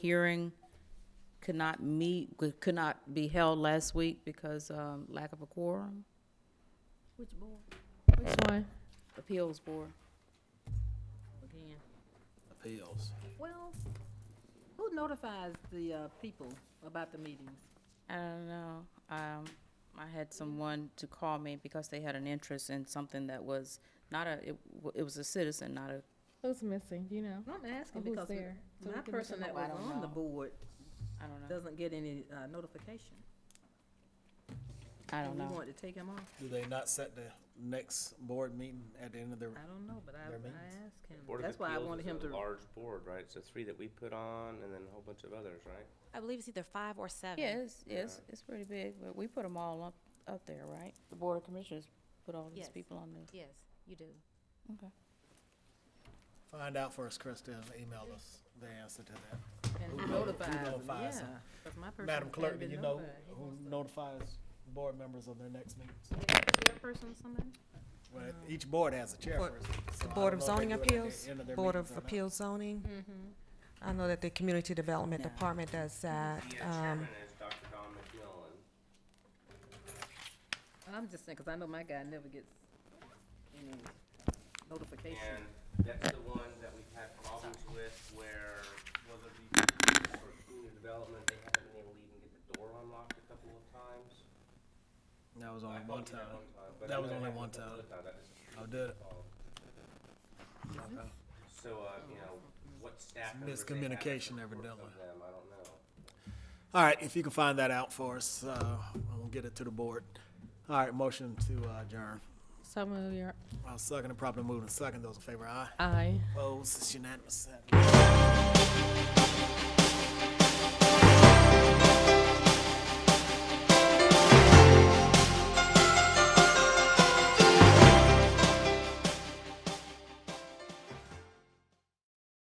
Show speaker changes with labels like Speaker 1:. Speaker 1: hearing could not meet, could not be held last week because, um, lack of a quorum,
Speaker 2: Which board?
Speaker 3: Which one?
Speaker 1: appeals board. Again.
Speaker 4: appeals.
Speaker 2: Well, who notifies the, uh, people about the meetings?
Speaker 1: I don't know. Um, I had someone to call me because they had an interest in something that was not a, it, w- it was a citizen, not a,
Speaker 3: Who's missing? Do you know?
Speaker 2: I'm asking
Speaker 3: Or who's
Speaker 2: because
Speaker 3: there? So we
Speaker 2: my
Speaker 3: can look
Speaker 2: person
Speaker 3: them
Speaker 2: that
Speaker 3: up. I
Speaker 2: was
Speaker 3: don't
Speaker 2: on the
Speaker 3: know.
Speaker 2: board
Speaker 1: I don't know.
Speaker 2: doesn't get any, uh, notification.
Speaker 1: I don't
Speaker 2: and We
Speaker 1: know.
Speaker 2: want to take him off.
Speaker 4: Do they not set the next board meeting at the end of their,
Speaker 2: I don't know, but I,
Speaker 4: Their
Speaker 2: I
Speaker 4: meetings.
Speaker 2: asked him.
Speaker 5: Board of
Speaker 2: That's why I
Speaker 5: Appeals
Speaker 2: wanted
Speaker 5: is
Speaker 2: him
Speaker 5: a
Speaker 2: to,
Speaker 5: Large board, right? It's the three that we put on and then a whole bunch of others, right?
Speaker 6: I believe it's either five or seven.
Speaker 1: Yeah, it's, it's, it's pretty big, but we put them all up, up there, right? The board of commissioners put all these
Speaker 6: Yes.
Speaker 1: people on there.
Speaker 6: Yes, you do.
Speaker 1: Okay.
Speaker 4: find out for us, Krista, and email us the answer to that.
Speaker 2: and
Speaker 4: Who
Speaker 2: who
Speaker 4: no- who
Speaker 2: notifies him, yeah.
Speaker 4: notifies him?
Speaker 2: 'cause my person
Speaker 4: Madam
Speaker 2: hadn't
Speaker 4: Clerk, do
Speaker 2: been
Speaker 4: you know
Speaker 2: notified. He
Speaker 4: who
Speaker 2: wants to-
Speaker 4: notifies board members of their next meetings?
Speaker 2: Is there a person or something?
Speaker 4: Well, each board has a chairperson. so
Speaker 7: The
Speaker 4: I
Speaker 7: Board
Speaker 4: don't
Speaker 7: of
Speaker 4: know if they
Speaker 7: Zoning
Speaker 4: do it at the
Speaker 7: Appeals,
Speaker 4: end their
Speaker 7: Board
Speaker 4: meetings
Speaker 7: of
Speaker 4: or not.
Speaker 7: Appeals Zoning. I know that the Community Development Department does that. Um,
Speaker 5: is Dr. Don McMillan.
Speaker 2: I'm just saying, 'cause I know my guy never gets any notification.
Speaker 5: And that's the one that we've had problems with where whether it be for community development, they haven't been able to even get the door unlocked a couple of times.
Speaker 4: That was
Speaker 5: I
Speaker 4: only
Speaker 5: thought
Speaker 4: one
Speaker 5: we did
Speaker 4: time.
Speaker 5: one but
Speaker 4: That
Speaker 5: I
Speaker 4: was
Speaker 5: know
Speaker 4: only
Speaker 5: happened
Speaker 4: one
Speaker 5: the
Speaker 4: time.
Speaker 5: other That is-
Speaker 4: I did it.
Speaker 5: Oh.
Speaker 4: Okay.
Speaker 5: So, uh, you know, what staff
Speaker 4: It's
Speaker 5: members they have as
Speaker 4: miscommunication
Speaker 5: support
Speaker 4: evidently.
Speaker 5: of them, I don't know.
Speaker 4: All right, if you can find that out for us, uh, we'll get it to the board. All right, motion to uh, adjourn.
Speaker 3: So move your
Speaker 4: I'll second and properly moved and second. Those in favor, aye.
Speaker 3: eye.
Speaker 4: Opposed, it's unanimous.